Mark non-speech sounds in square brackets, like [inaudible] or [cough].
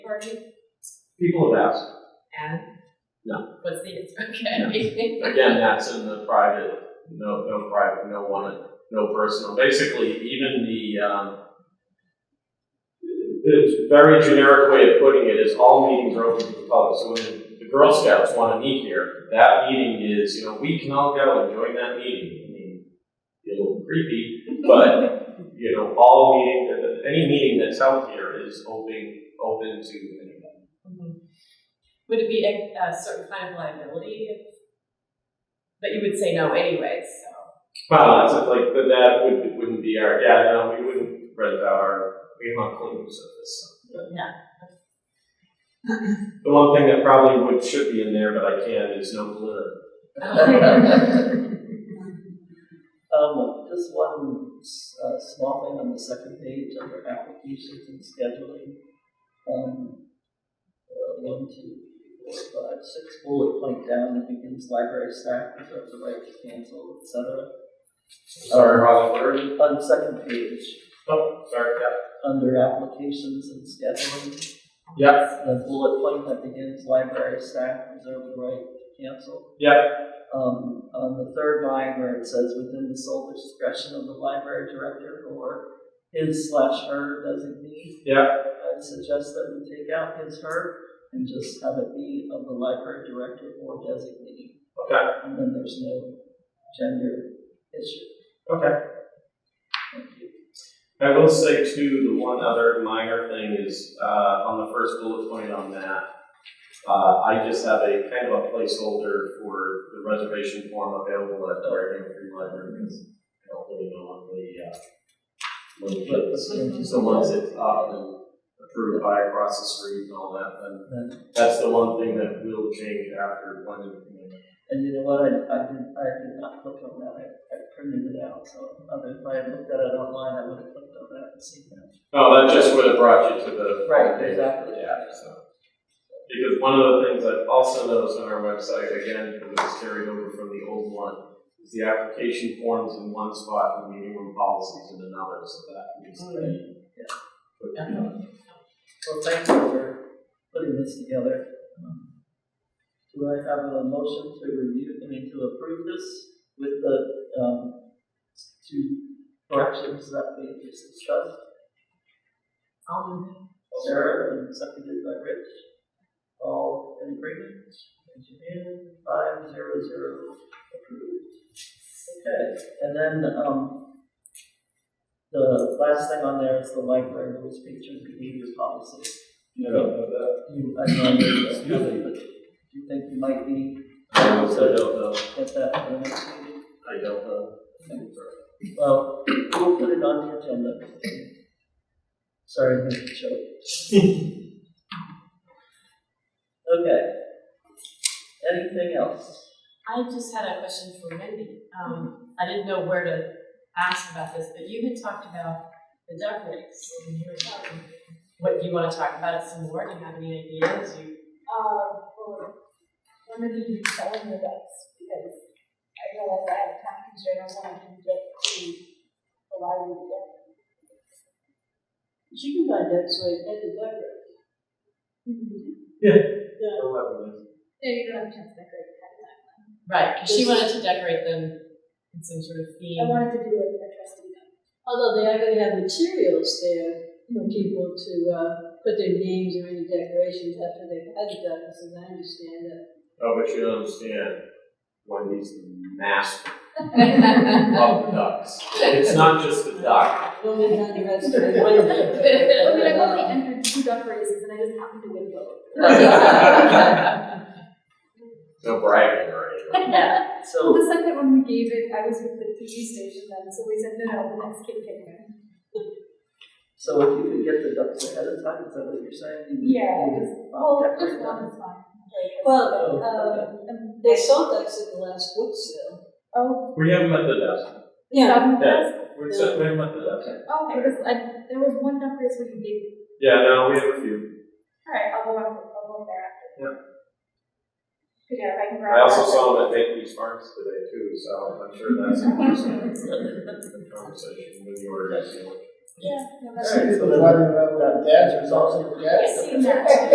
already? People have asked, And? No. What's the answer? Okay. again, that's in the private, no, no private, no one, no personal, basically, even the, um, the very generic way of putting it is all meetings are open to the public, so when the Girl Scouts wanna meet here, that meeting is, you know, we can all go and join that meeting, I mean, be a little creepy, but, you know, all meeting, any meeting that's held here is open, open to anyone. Mhm. Would it be a, a certain kind of liability if, but you would say no anyways, so. Well, that's it, like, but that would, wouldn't be our, yeah, no, we wouldn't rent out our, we want clean surface. Yeah. The one thing that probably would, should be in there, but I can't, is no glitter. [laughs] Um, just one uh, small thing on the second page under applications and scheduling. Um, uh, one, two, three, four, five, six bullet point down, it begins library staff reserve the right to cancel, et cetera. Sorry, wrong word. On the second page, Oh, sorry, under applications and scheduling, yeah. the bullet point that begins library staff reserve the right to cancel. Yep, yep, um, on the third line where it says within the sole discretion of the library director or his slash her designee, yep. I'd suggest that we take out his her and just have it be of the library director or designee. Okay, And then there's no gender issue. okay. Thank you. I will say too, the one other minor thing is, uh, on the first bullet point on that, uh, I just have a kind of a placeholder for the reservation form available at the Reading Free Library, because I don't really know uh, on the, uh, But locations. let's go to So once it's up and uh, approved by across the street and all that, then then. that's the one thing that will change after planning commission. And you know what, I, I did, I did not click on that, I, I printed it out, so other, if I had looked at it online, I would have clicked on that and seen that. No, that just would have brought you to the. Right, exactly. Yeah, so. Because one of the things I've also noticed on our website, again, because it's carried over from the old one, is the application forms in one spot and the meeting room policies in another, so that needs to be. Yeah. put Yeah. together. Well, thank you for putting this together. Um, Do I have a motion to review, I mean, to approve this with the, um, two corrections that we just discussed? Um, Sarah and seconded by Rich. All in agreement? Raise your hand. Five, zero, zero, approved. Okay, and then, um, the last thing on there is the library rules, pictures, behaviors policy. You, I know, that you have it, but do you think you might be I also don't know, at that for the next meeting? I don't know. Well, we'll put it on the agenda. Sorry, I made a joke. Okay. Anything else? I just had a question for Wendy. Um, I didn't know where to ask about this, but you had talked about the duck race. and you were talking- What, do you wanna talk about it some more? Do you have any ideas? You, uh, for limiting the selling the ducks, because I realize I have a time constraint, I want to get to the library together. But you can buy ducks right at the library. No, you don't have a chance to decorate that. right, 'cause she wanted to decorate them in some sort of I theme. wanted to do like a trustee duck. Although they are going to have materials there for people to uh, put their names or any decorations after they've had the ducks, as I understand it. Oh, but you don't understand, Wendy's the master of the Well, ducks. It's not just the duck. we're not the rest of it. I mean, I've only [laughs] entered two duck races and I just happened to win both. [laughs] [laughs] No bragging or anything. Yeah. Well, So, the second one we gave it, I was with the TV station then, so we said, no, no, the next kid can win. so if you could get the ducks ahead of time, is that what you're saying? Yeah, You- just, you- well, decorate just them. one is fine. [laughs] Oh, Well, okay. Um, and they sold ducks at the last book sale. Oh, We haven't met the duck. seven Yeah. was- We're set, we haven't met the duck. Oh, because I, there was one duck race where you gave Yeah, no, we have a few. Alright, I'll go up, I'll go up there after. Yeah. Good job, I can grab. I also that. saw them at Bakery's Farms today too, so I'm sure that's an interesting conversation when you were at the. Yeah, no, All that's. right, so then, that- that's resolved. Yes, you know.